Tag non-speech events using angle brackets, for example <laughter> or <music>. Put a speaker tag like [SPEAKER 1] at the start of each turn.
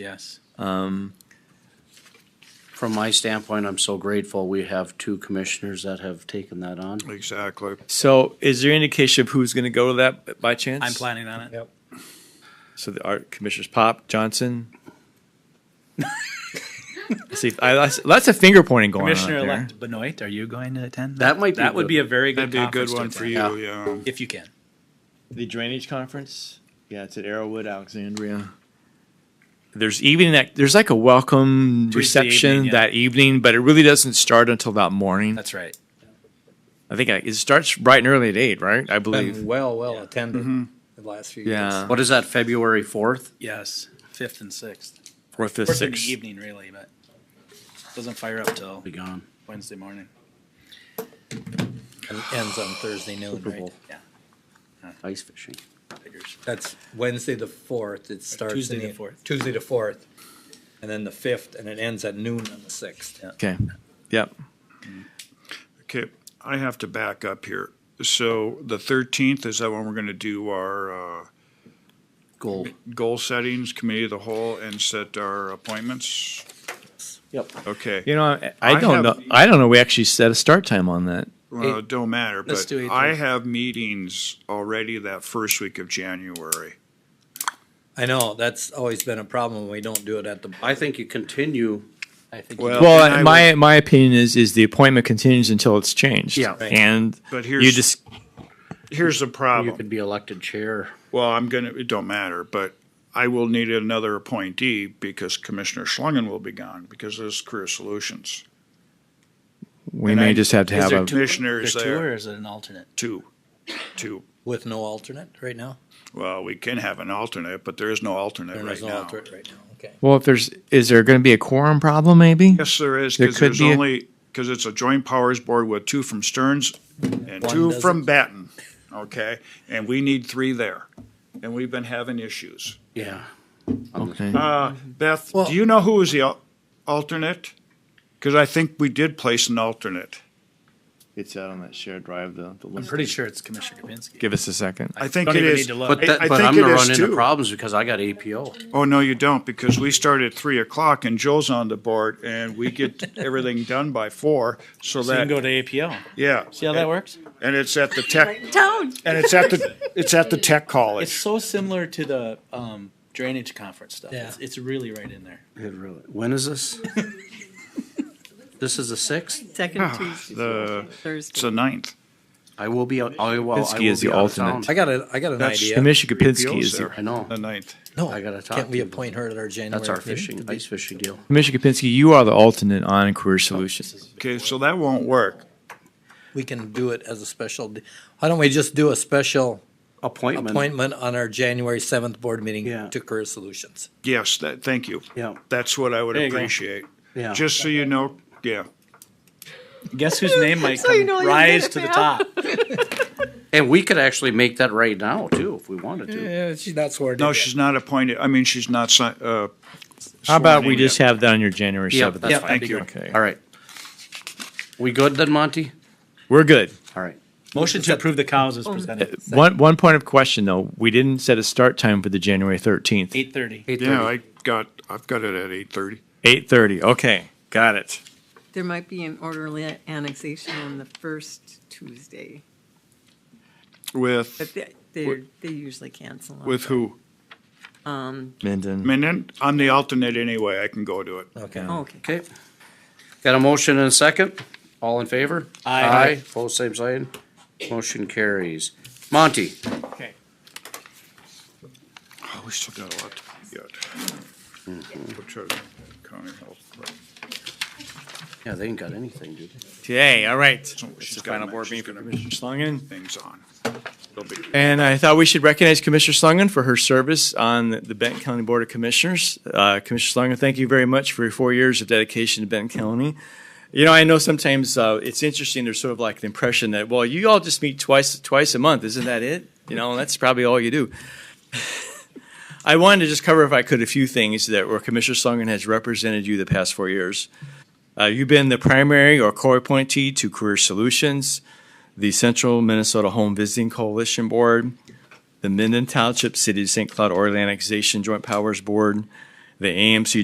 [SPEAKER 1] Yes.
[SPEAKER 2] Um,
[SPEAKER 3] From my standpoint, I'm so grateful we have two commissioners that have taken that on.
[SPEAKER 4] Exactly.
[SPEAKER 2] So is there indication of who's going to go to that by chance?
[SPEAKER 1] I'm planning on it.
[SPEAKER 2] So the art commissioners Pop Johnson. <laughs> See, I, that's, that's a finger pointing going on. out
[SPEAKER 1] Commissioner-elect
[SPEAKER 2] there.
[SPEAKER 1] Benoit, are you going to attend?
[SPEAKER 3] That might be
[SPEAKER 1] That would
[SPEAKER 3] good.
[SPEAKER 1] be a very good
[SPEAKER 4] That'd be a good
[SPEAKER 1] conference to
[SPEAKER 4] one for
[SPEAKER 1] attend,
[SPEAKER 4] you, yeah.
[SPEAKER 1] If you can.
[SPEAKER 2] The drainage conference. Yeah, it's at Arrowwood, Alexandria. There's evening that there's like a welcome
[SPEAKER 1] Tuesday
[SPEAKER 2] reception
[SPEAKER 1] evening, yeah.
[SPEAKER 2] that evening, but it really doesn't start until that morning.
[SPEAKER 1] That's right.
[SPEAKER 2] I think I, it starts bright and early at eight, right? I believe.
[SPEAKER 5] Been well, well
[SPEAKER 3] Mm-hmm.
[SPEAKER 5] attended the last few years.
[SPEAKER 2] Yeah,
[SPEAKER 3] What is that, February fourth?
[SPEAKER 1] Yes, fifth and sixth.
[SPEAKER 2] fourth, fifth,
[SPEAKER 1] Fourth in the
[SPEAKER 2] sixth.
[SPEAKER 1] evening, really, but doesn't fire up till
[SPEAKER 3] Be gone.
[SPEAKER 1] Wednesday morning.
[SPEAKER 5] And ends on Thursday noon,
[SPEAKER 3] Super
[SPEAKER 5] right?
[SPEAKER 3] Bowl.
[SPEAKER 1] Yeah.
[SPEAKER 3] Ice fishing.
[SPEAKER 1] figures.
[SPEAKER 5] That's Wednesday the fourth, it starts. in
[SPEAKER 1] Tuesday the 4th.
[SPEAKER 5] Tuesday the fourth, and then the fifth, and it ends at noon on the sixth.
[SPEAKER 2] Okay. Yep.
[SPEAKER 4] Okay, I have to back up here. So the thirteenth, is that when we're gonna do our, uh,
[SPEAKER 3] Goal.
[SPEAKER 4] goal settings, committee of the whole, and set our appointments?
[SPEAKER 3] Yep.
[SPEAKER 4] Okay,
[SPEAKER 2] You know, I, I
[SPEAKER 4] I
[SPEAKER 2] don't
[SPEAKER 4] have-
[SPEAKER 2] know. I don't know. We actually set a start time on that.
[SPEAKER 4] well, it don't matter,
[SPEAKER 5] Let's
[SPEAKER 4] but
[SPEAKER 5] do it
[SPEAKER 4] I
[SPEAKER 5] then.
[SPEAKER 4] have meetings already that first week of January.
[SPEAKER 5] I know, that's always been a problem, we don't do it at the.
[SPEAKER 3] I think you continue.
[SPEAKER 5] I think.
[SPEAKER 4] Well- and I
[SPEAKER 2] Well, my my opinion is is the appointment continues until it's changed.
[SPEAKER 3] Yeah.
[SPEAKER 5] Right.
[SPEAKER 2] and
[SPEAKER 4] But
[SPEAKER 2] you
[SPEAKER 4] here's-
[SPEAKER 2] just
[SPEAKER 4] Here's the
[SPEAKER 3] You
[SPEAKER 4] problem.
[SPEAKER 3] could be elected chair.
[SPEAKER 4] Well, I'm gonna, it don't matter, but I will need another appointee because Commissioner Schlangen will be gone because of his career solutions.
[SPEAKER 2] we
[SPEAKER 4] And
[SPEAKER 2] may
[SPEAKER 4] I-
[SPEAKER 2] just have to
[SPEAKER 1] Is
[SPEAKER 2] have
[SPEAKER 1] there
[SPEAKER 2] a
[SPEAKER 1] two-
[SPEAKER 4] Commissioners
[SPEAKER 1] there two
[SPEAKER 4] there.
[SPEAKER 1] or is it an alternate?
[SPEAKER 4] Two, two.
[SPEAKER 5] With no alternate right now?
[SPEAKER 4] Well, we can have an alternate, but there is no alternate
[SPEAKER 5] There
[SPEAKER 4] right
[SPEAKER 5] is no
[SPEAKER 4] now.
[SPEAKER 5] alternate right now, okay.
[SPEAKER 2] well. If there's is there going to be a quorum problem? Maybe
[SPEAKER 4] Yes, there is,
[SPEAKER 2] There
[SPEAKER 4] because
[SPEAKER 2] could
[SPEAKER 4] there's
[SPEAKER 2] be a-
[SPEAKER 4] only, because it's a joint powers board with two from Stearns and
[SPEAKER 5] One
[SPEAKER 4] two from
[SPEAKER 5] doesn't.
[SPEAKER 4] Batten, okay? And we need three there, and we've been having issues.
[SPEAKER 3] Yeah.
[SPEAKER 2] Okay.
[SPEAKER 4] Uh,
[SPEAKER 1] Mm-hmm.
[SPEAKER 4] Beth,
[SPEAKER 5] Well-
[SPEAKER 4] do you know who was the al- alternate? Because I think we did place an alternate.
[SPEAKER 2] it's out on that shared drive. The, the
[SPEAKER 1] I'm pretty sure it's Commissioner Kapinski.
[SPEAKER 2] Give us a second.
[SPEAKER 4] I think
[SPEAKER 1] don't
[SPEAKER 4] it
[SPEAKER 1] even
[SPEAKER 4] is.
[SPEAKER 1] need to look.
[SPEAKER 3] But
[SPEAKER 4] I-
[SPEAKER 3] that,
[SPEAKER 4] I
[SPEAKER 3] but
[SPEAKER 4] think
[SPEAKER 3] I'm
[SPEAKER 4] it
[SPEAKER 3] gonna
[SPEAKER 4] is
[SPEAKER 3] run into
[SPEAKER 4] two.
[SPEAKER 3] problems because I got APO.
[SPEAKER 4] Oh, no, you don't, because we start at three o'clock and Joe's on the board and we
[SPEAKER 1] <laughs>
[SPEAKER 4] get everything done by four, so
[SPEAKER 1] So you can go
[SPEAKER 4] that,
[SPEAKER 1] to APO.
[SPEAKER 4] yeah.
[SPEAKER 1] See how that works?
[SPEAKER 4] And it's at the tech,
[SPEAKER 6] Don't.
[SPEAKER 4] and it's at the, it's at the tech college.
[SPEAKER 1] It's so similar to the um, drainage conference stuff. It's,
[SPEAKER 5] Yeah.
[SPEAKER 1] it's really right in there.
[SPEAKER 3] It really- When is <laughs> this? This is the sixth?
[SPEAKER 6] Second Tuesday.
[SPEAKER 4] Ah, the- It's
[SPEAKER 6] Thursday.
[SPEAKER 4] the ninth.
[SPEAKER 3] I will be, out- I will, I will
[SPEAKER 2] Pinsky
[SPEAKER 3] be
[SPEAKER 2] is the
[SPEAKER 3] out of
[SPEAKER 2] alternate.
[SPEAKER 5] I
[SPEAKER 3] town.
[SPEAKER 5] got a, I got an
[SPEAKER 4] That's-
[SPEAKER 5] idea.
[SPEAKER 2] Commissioner Kapinski
[SPEAKER 4] Appeals
[SPEAKER 2] is the,
[SPEAKER 4] there.
[SPEAKER 3] I know.
[SPEAKER 4] The ninth.
[SPEAKER 5] No,
[SPEAKER 3] I gotta talk
[SPEAKER 5] Can't
[SPEAKER 3] to
[SPEAKER 5] we
[SPEAKER 3] you.
[SPEAKER 5] appoint her at our January?
[SPEAKER 3] That's our
[SPEAKER 5] meeting?
[SPEAKER 3] fishing, ice fishing deal.
[SPEAKER 2] Commissioner Kapinski. You are the alternate on Career Solutions.
[SPEAKER 4] Okay, so that won't work.
[SPEAKER 5] We can do it as a special, d- why don't we just do a special
[SPEAKER 3] Appointment.
[SPEAKER 5] appointment on our January seventh board
[SPEAKER 3] Yeah.
[SPEAKER 5] meeting to Career Solutions?
[SPEAKER 4] Yes, that, thank you.
[SPEAKER 3] Yeah,
[SPEAKER 4] That's what I would
[SPEAKER 1] There you go.
[SPEAKER 4] appreciate.
[SPEAKER 3] yeah.
[SPEAKER 4] Just so you know, yeah.
[SPEAKER 1] Guess whose name might
[SPEAKER 6] So you
[SPEAKER 1] come
[SPEAKER 6] know you did
[SPEAKER 1] rise
[SPEAKER 6] it,
[SPEAKER 1] to the
[SPEAKER 6] pal.
[SPEAKER 1] top?
[SPEAKER 3] And we could actually make that right now too, if we wanted to.
[SPEAKER 5] Yeah, she's not sworn
[SPEAKER 4] No, she's not appointed, I mean, she's not, si- uh.
[SPEAKER 2] How about we
[SPEAKER 4] sworn in
[SPEAKER 2] just
[SPEAKER 4] yet.
[SPEAKER 2] have that on your January
[SPEAKER 3] Yeah,
[SPEAKER 2] seventh?
[SPEAKER 3] that's
[SPEAKER 4] fine. Thank you.
[SPEAKER 2] Okay,
[SPEAKER 3] All right. We good then, Monty?
[SPEAKER 2] we're good.
[SPEAKER 3] All right.
[SPEAKER 1] Motion to approve the cows is presented.
[SPEAKER 2] One one point of question though. We didn't set a start time for the January thirteenth.
[SPEAKER 1] Eight thirty.
[SPEAKER 4] Yeah, I got, I've got it at eight thirty.
[SPEAKER 2] Eight thirty. Okay, got it.
[SPEAKER 6] There might be an orderly annexation on the first Tuesday, but
[SPEAKER 4] With,
[SPEAKER 6] they, they're, they usually cancel. on
[SPEAKER 4] with who?
[SPEAKER 2] Minden.
[SPEAKER 4] I mean, then I'm the alternate anyway, I can go to it.
[SPEAKER 5] Okay.
[SPEAKER 6] that. Oh, Okay.
[SPEAKER 3] Okay. Got a motion and a second? All in favor?
[SPEAKER 1] Aye.
[SPEAKER 3] Aye, both same sign. Motion carries. Monty,
[SPEAKER 4] Oh, we still got a lot to get. We'll try to- county health, right.
[SPEAKER 3] yeah, they ain't got anything, dude.
[SPEAKER 2] Today, all right.
[SPEAKER 4] So
[SPEAKER 2] It's
[SPEAKER 4] she's
[SPEAKER 2] the
[SPEAKER 4] got
[SPEAKER 2] final
[SPEAKER 4] that.
[SPEAKER 2] board
[SPEAKER 4] She's
[SPEAKER 2] meeting for
[SPEAKER 4] gonna-
[SPEAKER 2] Commissioner Schlangen.
[SPEAKER 4] Things on. It'll be-
[SPEAKER 2] And I thought we should recognize Commissioner Schlangen for her service on the- the Benton County Board of Commissioners. Uh, Commissioner Schlangen, thank you very much for your four years of dedication to Benton County. You know, I know sometimes uh, it's interesting, there's sort of like the impression that, well, you all just meet twice, twice a month, isn't that it? You know, that's probably all you do. <laughs> I wanted to just cover, if I could, a few things that where Commissioner Schlangen has represented you the past four years. Uh, You've been the primary or core appointee to Career Solutions, the Central Minnesota Home Visiting Coalition Board, the Minden Township City of St. Cloud Organization Joint Powers Board, the AMC